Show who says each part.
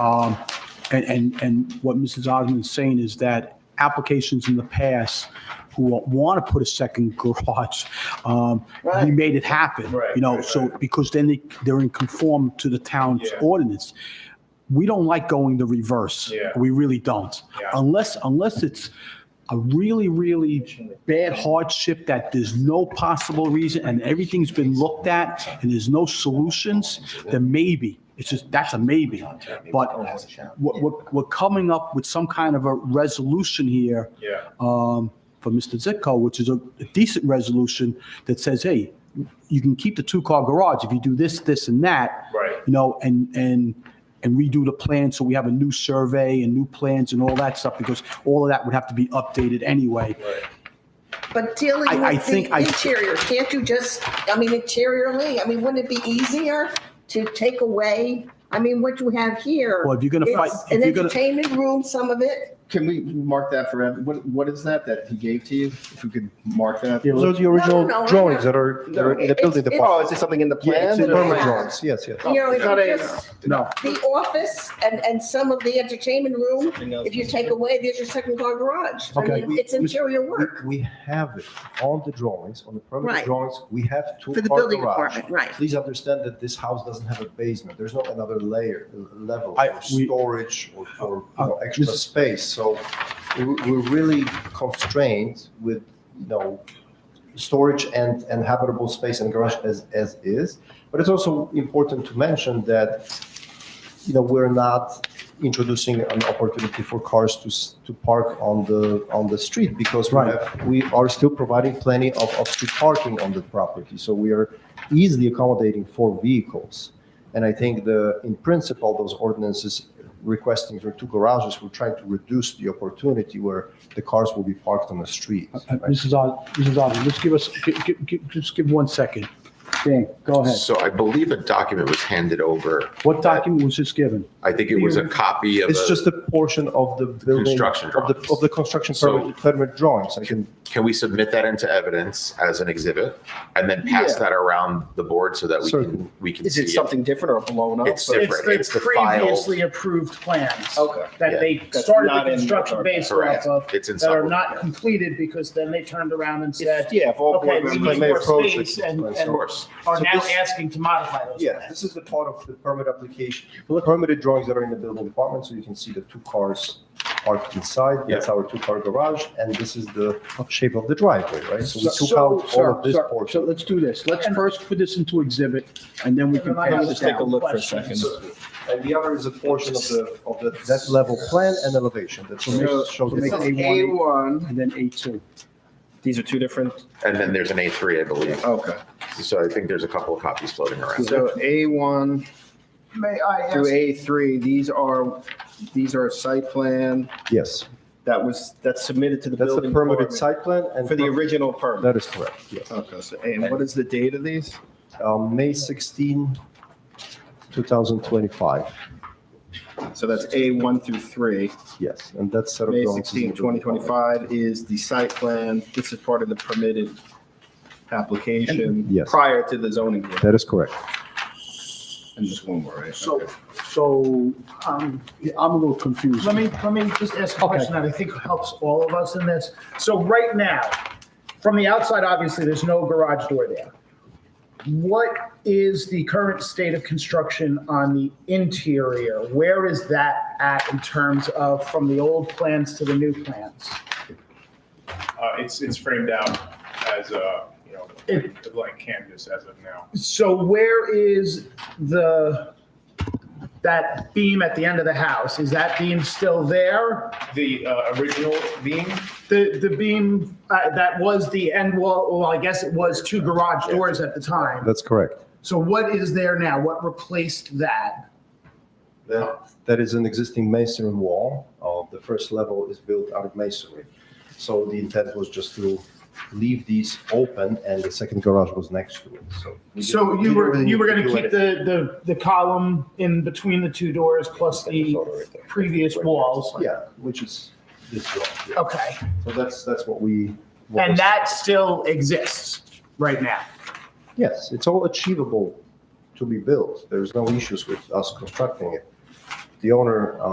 Speaker 1: Um, And, and, and what Mrs. Osmond's saying is that applications in the past who want to put a second garage, um, we
Speaker 2: Right.
Speaker 1: made it happen.
Speaker 3: Right,
Speaker 1: You know,
Speaker 3: right,
Speaker 1: so,
Speaker 3: right.
Speaker 1: because then they, they're in conform to the town's
Speaker 3: Yeah.
Speaker 1: ordinance. We don't like going the reverse.
Speaker 3: Yeah.
Speaker 1: We really don't.
Speaker 3: Yeah.
Speaker 1: Unless, unless it's a really, really bad hardship that there's no possible reason and everything's been looked at and there's no solutions, then maybe. It's just, that's a maybe. But what, what, we're coming up with some kind of a resolution here,
Speaker 3: Yeah,
Speaker 4: Uh,
Speaker 1: um, for Mr. Zitko, which is a decent resolution that says, hey, you can keep the two-car garage if you do this, this, and that
Speaker 3: right.
Speaker 1: you know, and, and, and redo the plan, so we have a new survey and new plans and all that stuff, because all of that would have to be updated anyway.
Speaker 3: Right.
Speaker 2: But dealing
Speaker 1: I- I
Speaker 2: with
Speaker 1: think
Speaker 2: the
Speaker 1: I-
Speaker 2: interior, can't you just, I mean, interiorly, I mean, wouldn't it be easier to take away? I mean, what you have here.
Speaker 1: Well, if you're gonna fight-
Speaker 2: it's
Speaker 1: if
Speaker 2: An
Speaker 1: you're gonna-
Speaker 2: entertainment room, some of it.
Speaker 4: Can we mark that for, ev- what, what is that that he gave to you? If we could mark that?
Speaker 5: Those are the
Speaker 2: no, no,
Speaker 5: original
Speaker 2: no.
Speaker 5: drawings that are, that are in the
Speaker 2: No,
Speaker 5: building
Speaker 2: it's-
Speaker 4: Oh,
Speaker 5: department.
Speaker 4: is it something in the
Speaker 5: Yeah, it's
Speaker 4: plan?
Speaker 5: the
Speaker 2: no, no,
Speaker 5: permanent
Speaker 2: no.
Speaker 5: drawings, yes, yes.
Speaker 2: You know, if
Speaker 4: Not
Speaker 2: you
Speaker 4: a-
Speaker 2: just,
Speaker 1: No,
Speaker 2: the office and, and some of the entertainment room, if you take away, there's your second car garage. I
Speaker 1: Okay.
Speaker 2: mean, it's interior
Speaker 5: We,
Speaker 2: work
Speaker 5: we have it on the drawings, on the permanent
Speaker 2: Right.
Speaker 5: drawings, we have two.
Speaker 2: for the
Speaker 5: car
Speaker 2: building
Speaker 5: garage.
Speaker 2: department, right.
Speaker 5: Please understand that this house doesn't have a basement. There's not another layer, uh, level
Speaker 1: I-
Speaker 5: for
Speaker 1: we-
Speaker 5: storage or for you
Speaker 1: Uh,
Speaker 5: know, extra
Speaker 1: Mrs.
Speaker 5: space. So we're we're really constrained with, you know, storage and, and habitable space and garage as, as is. But it's also important to mention that, you know, we're not introducing an opportunity for cars to, s- to park on the, on the street because we
Speaker 1: Right.
Speaker 5: have, we are still providing plenty of, of street parking on the property. So we are easily accommodating four vehicles. And I think the, in principle, those ordinances requesting for two garages, we're trying to reduce the opportunity where the cars will be parked on the street.
Speaker 1: Uh, Mrs. Os, Mrs. Osmond, just give us, gi- gi- gi- just give one second. Dan, go ahead.
Speaker 6: So I believe a document was handed over.
Speaker 1: What document was just given?
Speaker 6: I think it was a copy of
Speaker 5: It's just
Speaker 6: a,
Speaker 5: a portion of the building.
Speaker 6: construction
Speaker 5: Of the,
Speaker 6: drawings.
Speaker 5: of the construction
Speaker 6: So-
Speaker 5: permit, permit drawings. I can,
Speaker 6: can we submit that into evidence as an exhibit? And then pass that around the board so that we
Speaker 5: Certainly.
Speaker 6: can, we can
Speaker 4: Is
Speaker 6: see
Speaker 4: it
Speaker 6: it?
Speaker 4: something different or blown up?
Speaker 6: It's
Speaker 4: Or-
Speaker 6: different.
Speaker 7: It's
Speaker 6: It's
Speaker 7: the
Speaker 6: the filed-
Speaker 7: previously approved plans.
Speaker 4: Okay.
Speaker 7: That they
Speaker 4: That's
Speaker 7: started
Speaker 4: not
Speaker 7: the
Speaker 4: in the
Speaker 7: construction
Speaker 4: document.
Speaker 7: based
Speaker 6: Correct.
Speaker 7: off of,
Speaker 6: It's in
Speaker 7: that are
Speaker 6: some-
Speaker 7: not completed because then they turned around and said,
Speaker 4: If- Yeah, if all
Speaker 7: okay,
Speaker 4: board
Speaker 7: we
Speaker 4: members
Speaker 7: need
Speaker 5: may
Speaker 7: more
Speaker 5: approach it.
Speaker 7: space and,
Speaker 5: Of
Speaker 6: Of
Speaker 7: and
Speaker 6: course.
Speaker 7: are
Speaker 5: So
Speaker 7: now
Speaker 5: this-
Speaker 7: asking to modify those
Speaker 5: yeah,
Speaker 7: plans.
Speaker 5: this is the part of the permit application, the permitted drawings that are in the building department. So you can see the two cars parked inside. That's our two car garage. And this is the shape of the driveway, right? So we took out all
Speaker 1: So-
Speaker 5: of this
Speaker 1: so- So
Speaker 5: portion.
Speaker 1: let's do this. Let's first put this into exhibit, and then we can pass
Speaker 4: Let's
Speaker 1: it
Speaker 4: take a
Speaker 1: down.
Speaker 4: look for a
Speaker 7: Question.
Speaker 4: second.
Speaker 5: So- And the other is a portion of the, of the, that level plan and elevation. That's
Speaker 1: So-
Speaker 5: what shows.
Speaker 1: so make
Speaker 5: the-
Speaker 1: it A1, and then A2.
Speaker 4: These are two different,
Speaker 6: And then there's an A3, I believe.
Speaker 4: okay.
Speaker 6: So I think there's a couple of copies floating around.
Speaker 4: So A1
Speaker 8: May I
Speaker 4: through
Speaker 8: ask,
Speaker 4: A3, these are, these are site plan
Speaker 5: Yes,
Speaker 4: that was, that's submitted to the
Speaker 5: that's the
Speaker 4: building
Speaker 5: permitted
Speaker 4: department
Speaker 5: site plan and.
Speaker 4: for the
Speaker 5: per-
Speaker 4: original permit.
Speaker 5: That is correct, yes.
Speaker 4: Okay, so, and what is the date of these?
Speaker 5: Um, May 16, 2025,
Speaker 4: So that's A1 through 3.
Speaker 5: yes, and that's set of.
Speaker 4: May
Speaker 5: drawings is
Speaker 4: 16,
Speaker 5: in the building department.
Speaker 4: 2025 is the site plan. This is part of the permitted application
Speaker 5: Yes.
Speaker 4: prior to the zoning board.
Speaker 5: That is correct.
Speaker 4: And just one more, right?
Speaker 1: So,
Speaker 4: Okay.
Speaker 1: so, um, I'm a little confused.
Speaker 7: Let me, let me just ask a question that I think helps all of us in this. So right now, from the outside, obviously, there's no garage door there. What is the current state of construction on the interior? Where is that at in terms of from the old plans to the new plans?
Speaker 3: Uh, it's, it's framed out as a, you know,
Speaker 7: It-
Speaker 3: a blank canvas as of now.
Speaker 7: So where is the, that beam at the end of the house? Is that beam still there?
Speaker 3: The, uh, original beam,
Speaker 7: The, the beam, uh, that was the end wall, well, I guess it was two garage doors at the time.
Speaker 5: That's correct.
Speaker 7: So what is there now? What replaced that?
Speaker 5: That, that is an existing masonry wall. Uh, The first level is built out of masonry. So the intent was just to leave these open and the second garage was next to it, so. we
Speaker 7: So
Speaker 5: didn't-
Speaker 7: you
Speaker 5: we
Speaker 7: were,
Speaker 5: didn't
Speaker 7: you were
Speaker 5: really
Speaker 7: gonna
Speaker 5: need
Speaker 7: keep
Speaker 5: do anything.
Speaker 7: the, the, the column in between the two doors plus the previous walls?
Speaker 5: Yeah, which is this wall. yeah.
Speaker 7: Okay,
Speaker 5: So that's, that's what we. what
Speaker 7: and
Speaker 5: was-
Speaker 7: that still exists right now?
Speaker 5: Yes, it's all achievable to be built. There's no issues with us constructing it. the owner,